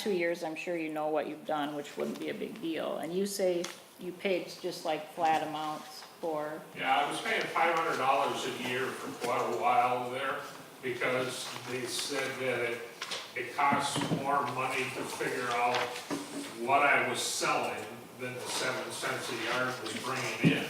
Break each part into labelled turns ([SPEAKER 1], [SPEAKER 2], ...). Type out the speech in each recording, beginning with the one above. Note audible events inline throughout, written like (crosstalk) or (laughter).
[SPEAKER 1] two years, I'm sure you know what you've done, which wouldn't be a big deal. And you say you paid just like flat amounts for,
[SPEAKER 2] Yeah, I was paying five hundred dollars a year for quite a while there because they said that it, it costs more money to figure out what I was selling than the seven cents a yard was bringing in.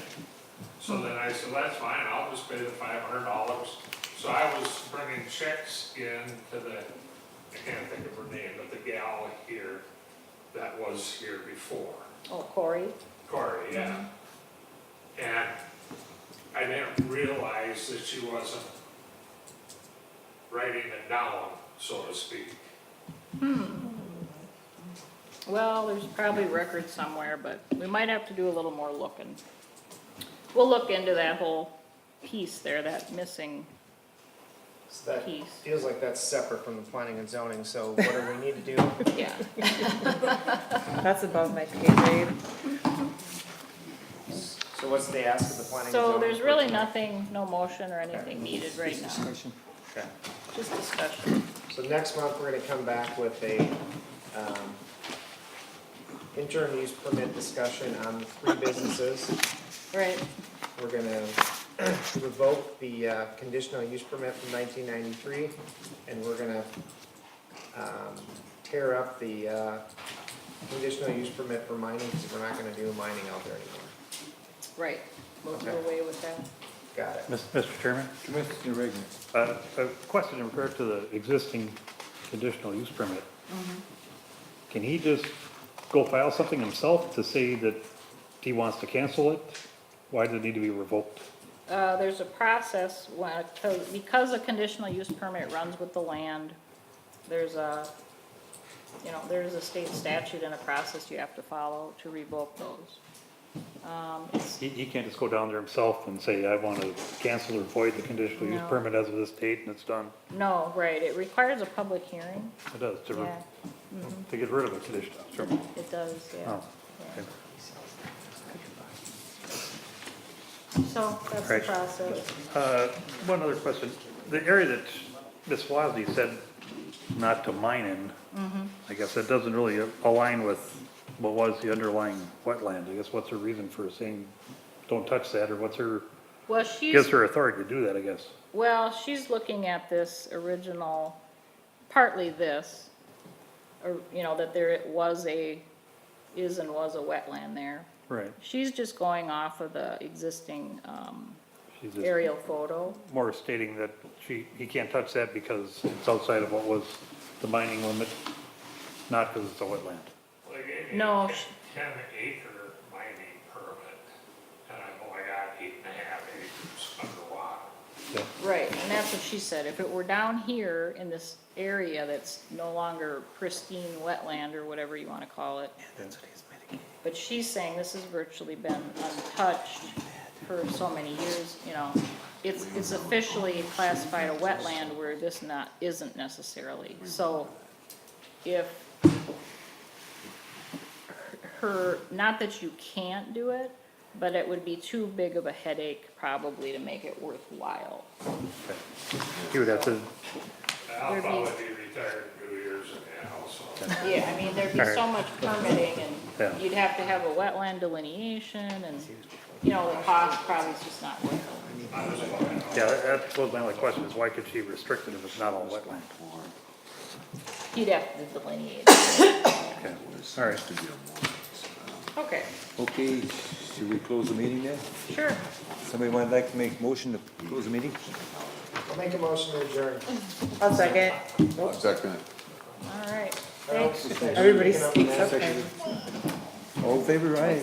[SPEAKER 2] So then I said, that's fine, I'll just pay the five hundred dollars. So I was bringing checks in to the, I can't think of her name, but the gal here that was here before.
[SPEAKER 1] oh, Corey.
[SPEAKER 2] Corey, yeah. And I didn't realize that she wasn't writing it down, so to speak.
[SPEAKER 1] Well, there's probably records somewhere, but we might have to do a little more looking. We'll look into that whole piece there, that missing,
[SPEAKER 3] So that
[SPEAKER 1] Piece.
[SPEAKER 3] feels like that's separate from the planning and zoning, so what do
[SPEAKER 1] (laughs)
[SPEAKER 3] we need to do?
[SPEAKER 1] yeah.
[SPEAKER 4] That's above my pay grade.
[SPEAKER 3] So what's the ask of the planning and zoning?
[SPEAKER 1] So there's really
[SPEAKER 3] person?
[SPEAKER 1] nothing, no motion or anything needed right now,
[SPEAKER 3] Okay.
[SPEAKER 1] just discussion.
[SPEAKER 3] So next month, we're gonna come back with a, um, interim use permit discussion on the three businesses.
[SPEAKER 1] Right.
[SPEAKER 3] We're gonna (clears throat) revoke the uh, conditional use permit from nineteen ninety-three, and we're gonna um, tear up the uh, conditional use permit for mining, because we're not gonna do mining out there anymore.
[SPEAKER 1] Right, we'll do away with that.
[SPEAKER 3] Got it?
[SPEAKER 5] Mr. Chairman,
[SPEAKER 6] Commissioner Reagan.
[SPEAKER 5] uh, a question in regard to the existing conditional use permit. Can he just go file something himself to say that he wants to cancel it? Why does it need to be revoked?
[SPEAKER 1] Uh, there's a process, when- to- because a conditional use permit runs with the land, there's a, you know, there's a state statute and a process you have to follow to revoke those.
[SPEAKER 5] He, he can't just go down there himself and say, I want to cancel or void the conditional use
[SPEAKER 1] No.
[SPEAKER 5] permit as of this date, and it's done.
[SPEAKER 1] No, right, it requires a public hearing,
[SPEAKER 5] It does, to, re-
[SPEAKER 1] yeah,
[SPEAKER 5] to get rid of a conditional use permit.
[SPEAKER 1] it does, yeah.
[SPEAKER 5] Oh,
[SPEAKER 1] yeah.
[SPEAKER 5] okay.
[SPEAKER 1] So that's the
[SPEAKER 5] Right.
[SPEAKER 1] process.
[SPEAKER 5] Uh, One other question. The area that Ms. Wasney said not to mine in, I guess that doesn't really align with what was the underlying wetland. I guess what's her reason for saying, don't touch that, or what's her,
[SPEAKER 1] Well, she's.
[SPEAKER 5] gives her authority to do that, I guess?
[SPEAKER 1] Well, she's looking at this original, partly this, or, you know, that there was a, is and was a wetland there.
[SPEAKER 5] Right.
[SPEAKER 1] She's just going off of the existing um,
[SPEAKER 5] She's just
[SPEAKER 1] aerial photo.
[SPEAKER 5] more stating that she, he can't touch that because it's outside of what was the mining limit, not because it's a wetland.
[SPEAKER 2] Like, it-
[SPEAKER 1] No,
[SPEAKER 2] it-
[SPEAKER 1] sh-
[SPEAKER 2] Ten acre mining permit, and I've only got eight and a half acres underwater.
[SPEAKER 5] Yeah.
[SPEAKER 1] Right. And that's what she said, if it were down here in this area that's no longer pristine wetland or whatever you want to call it. But she's saying this has virtually been untouched for so many years, you know. It's, it's officially classified a wetland where this not, isn't necessarily. So if her, not that you can't do it, but it would be too big of a headache probably to make it worthwhile.
[SPEAKER 5] He would have to
[SPEAKER 2] I'll
[SPEAKER 1] There'd be-
[SPEAKER 2] probably be retired in two years and a half, so.
[SPEAKER 1] Yeah, I mean, there'd be so much permitting
[SPEAKER 5] Yeah.
[SPEAKER 1] and you'd have to have a wetland delineation and, you know, the cost probably is just not worth it.
[SPEAKER 2] I was going,
[SPEAKER 5] Yeah, that- that was my only question, is why could she restrict it if it's not all wetland?
[SPEAKER 1] You'd have to delineate. it.
[SPEAKER 5] Okay, all right.
[SPEAKER 1] Okay,
[SPEAKER 6] Okay, should we close the meeting then?
[SPEAKER 1] sure.
[SPEAKER 6] Somebody would like to make motion to close the meeting?
[SPEAKER 3] I'll make a motion to adjourn.
[SPEAKER 4] I'll second.
[SPEAKER 7] Second.
[SPEAKER 1] All right.
[SPEAKER 3] Carol,
[SPEAKER 1] Thanks.
[SPEAKER 3] thanks for
[SPEAKER 4] Everybody
[SPEAKER 3] picking up on
[SPEAKER 4] speaks up.
[SPEAKER 3] that.
[SPEAKER 4] now.
[SPEAKER 6] All in favor, aye?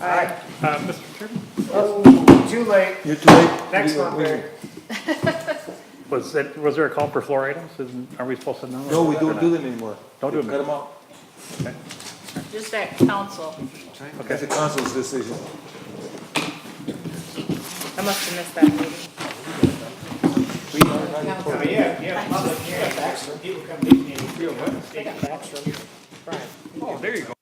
[SPEAKER 5] Uh, Mr. Chairman?
[SPEAKER 3] Oh, Too late.
[SPEAKER 6] You're too late.
[SPEAKER 3] Next
[SPEAKER 6] We- we-
[SPEAKER 3] month, Barry.
[SPEAKER 5] Was it, was there a call for floor items? Isn't- Are we supposed to know?
[SPEAKER 6] No, we don't do them anymore.
[SPEAKER 5] Don't do them.
[SPEAKER 6] Cut them out.
[SPEAKER 1] Just that council.
[SPEAKER 6] That's the council's decision.
[SPEAKER 4] I must have missed that meeting.
[SPEAKER 6] We are not in court.
[SPEAKER 3] Oh, Yeah, yeah, public hearing. People come meet me. They got Baxter. Brian.
[SPEAKER 5] Oh, there you go.